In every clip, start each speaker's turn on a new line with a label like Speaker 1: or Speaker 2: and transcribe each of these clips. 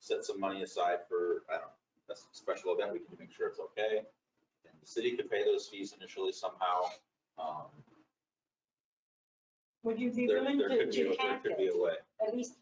Speaker 1: set some money aside for, I don't know, a s- special event, we can make sure it's okay. And the city could pay those fees initially somehow. Um,
Speaker 2: Would you be
Speaker 1: There,
Speaker 2: willing
Speaker 1: there
Speaker 2: to,
Speaker 1: could be,
Speaker 2: to
Speaker 1: a- there
Speaker 2: cap
Speaker 1: could be
Speaker 2: it,
Speaker 1: a way.
Speaker 2: at least,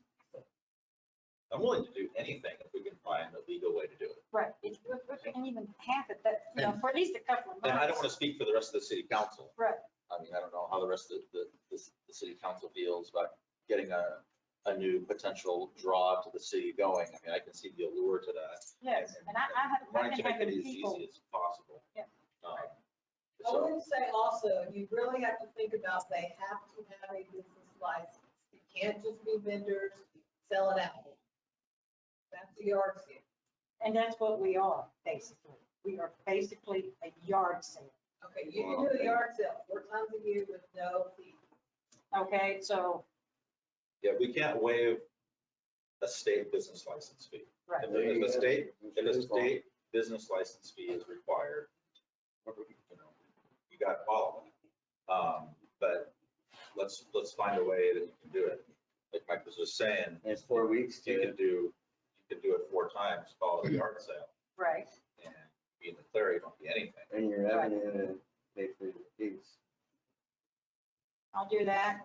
Speaker 1: I'm willing to do anything if we can find a legal way to do it.
Speaker 2: right, if, if if we can even half it, that, you know, for at least a couple of
Speaker 1: And I don't
Speaker 2: months.
Speaker 1: want to speak for the rest of the city council.
Speaker 2: Right.
Speaker 1: I mean, I don't know how the rest of the, the, the city council feels about getting a, a new potential draw to the city going. I mean, I can see the allure to that.
Speaker 2: Yes, and I, I have, I've
Speaker 1: Wanting to
Speaker 2: been
Speaker 1: make it
Speaker 2: having
Speaker 1: as
Speaker 2: people,
Speaker 1: easy as possible.
Speaker 2: Yeah.
Speaker 1: Um,
Speaker 3: I
Speaker 1: So,
Speaker 3: would say also, you really have to think about they have to have a business license. You can't just be vendors, sell it out. That's the yard sale.
Speaker 2: and that's what we are, basically. We are basically a yard sale,
Speaker 3: Okay, you can do a yard sale four times a year with no fee.
Speaker 2: okay? So,
Speaker 1: yeah, we can't waive a state business license fee.
Speaker 2: Right.
Speaker 1: If the- If the state If a state business license fee is required, you know, you got to follow it. Um, But let's, let's find a way that you can do it. Like Mike was just saying,
Speaker 4: It's four weeks
Speaker 1: you
Speaker 4: to,
Speaker 1: could do, you could do it four times, follow the yard sale,
Speaker 2: right,
Speaker 1: and be in the clear, you don't be anything.
Speaker 4: and your revenue to pay for your fees.
Speaker 2: I'll do that.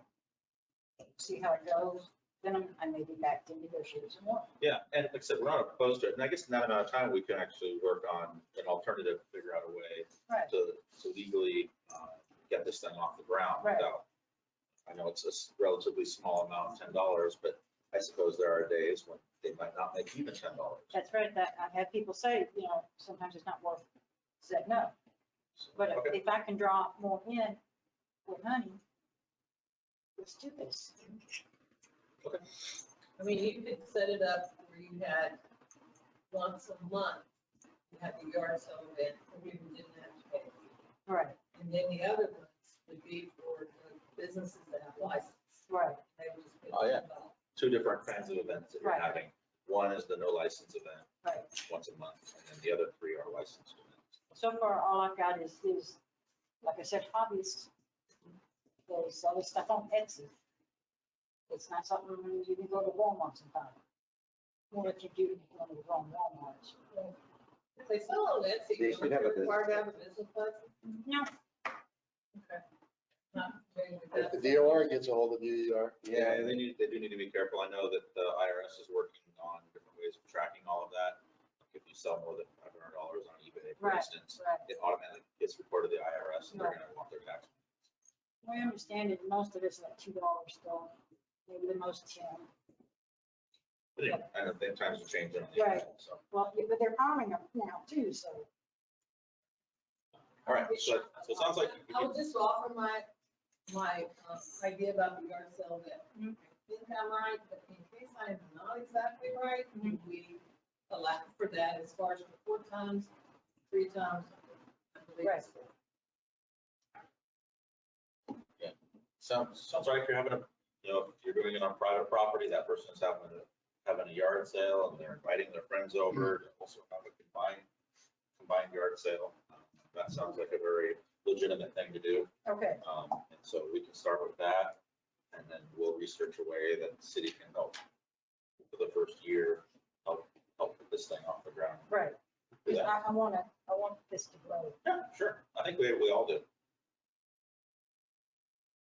Speaker 2: See how it goes, then I'm- I may be back to negotiate some more.
Speaker 1: Yeah, and like I said, we're not opposed to it, and I guess in that amount of time, we can actually work on an alternative, figure out a way
Speaker 2: Right.
Speaker 1: to, to legally uh, get this thing off the ground
Speaker 2: Right.
Speaker 1: without, I know it's a s- relatively small amount, ten dollars, but I suppose there are days when they might not make even ten dollars.
Speaker 2: That's right, that, I've had people say, you know, sometimes it's not worth, it. said no. But if-
Speaker 1: Okay.
Speaker 2: if I can draw more in with money, let's do this.
Speaker 3: I mean, you could set it up where you had once a month, you had the yard sale event, and we didn't have to pay. a fee.
Speaker 2: Right,
Speaker 3: And then the other ones would be for the businesses that have license.
Speaker 2: right,
Speaker 3: They would just pay
Speaker 1: Oh, yeah.
Speaker 3: $10.
Speaker 1: Two different kinds of events that you're
Speaker 2: Right.
Speaker 1: having. One is the no license event,
Speaker 2: right.
Speaker 1: once a month, and then the other three are licensed events.
Speaker 2: So far, all I've got is, is, like I said, hobbies. They sell this stuff on Etsy. It's not something you can go to Walmart and buy. Or if you do, you can go to the wrong Walmart.
Speaker 3: If they sell on Etsy,
Speaker 4: They
Speaker 3: you
Speaker 4: should have a
Speaker 3: required to have a business license?
Speaker 2: No,
Speaker 3: Okay. Not familiar with
Speaker 5: If
Speaker 3: that.
Speaker 5: the DOR gets a hold of you, you are.
Speaker 1: Yeah, they need, they do need to be careful. I know that the IRS is working on different ways of tracking all of that. If you sell more than five hundred dollars on eBay, for
Speaker 2: Right.
Speaker 1: instance,
Speaker 2: right.
Speaker 1: it automatically gets reported to the IRS and they're
Speaker 2: Right.
Speaker 1: gonna want their tax.
Speaker 2: I understand it, most of it's like two dollars still, maybe the most ten.
Speaker 1: But anyway, I know that times are changing on the internet, so.
Speaker 2: Well, yeah, but they're powering them now too, so.
Speaker 1: All right, so, so it sounds like you
Speaker 3: I
Speaker 1: could
Speaker 3: would just offer my, my um, idea about the yard sale that I
Speaker 2: Mhm.
Speaker 3: think I'm right, but in case I am not exactly right,
Speaker 2: Mhm.
Speaker 3: we allow for that as far as the four times, three times. I believe it's four.
Speaker 1: Sounds, sounds like you're having a, you know, if you're doing it on private property, that person's having a, having a yard sale and they're inviting their friends over to also have a combined, combined yard sale. That sounds like a very legitimate thing to do.
Speaker 2: Okay,
Speaker 1: Um, and so we can start with that and then we'll research a way that the city can help for the first year, help, help get this thing off the ground.
Speaker 2: right, because
Speaker 1: Yeah,
Speaker 2: I, I wanna, I want this to grow.
Speaker 1: yeah, sure. I think we, we all do.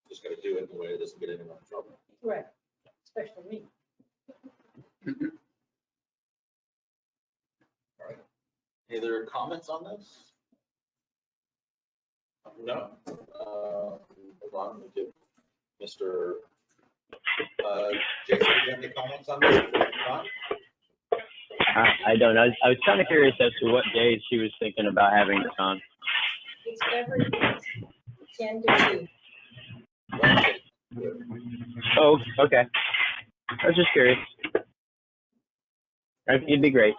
Speaker 1: Just gotta do it in a way that doesn't get anyone in trouble.
Speaker 2: Right. Especially me.
Speaker 1: All right. Any other comments on this? No? Uh, Hold on, we do. Mr. uh, Jason, do you have any comments on this? Ron?
Speaker 6: I, I don't know. I was, I was kind of curious as to what days she was thinking about having this on.
Speaker 2: It's every ten to two.
Speaker 1: Wednesday.
Speaker 6: Oh, okay. I was just curious. I think it'd be great.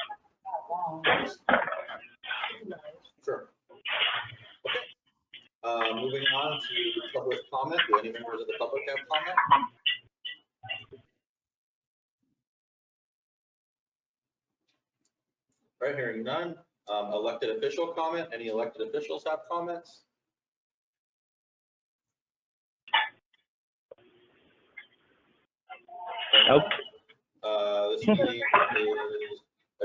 Speaker 2: not long. Who knows?
Speaker 1: Sure. Okay. Uh, Moving on to public comment. Do any members of the public have comment? All Right, hearing none. Um, Elected official comment. Any elected officials have comments?
Speaker 6: Nope.
Speaker 1: Uh, This meeting is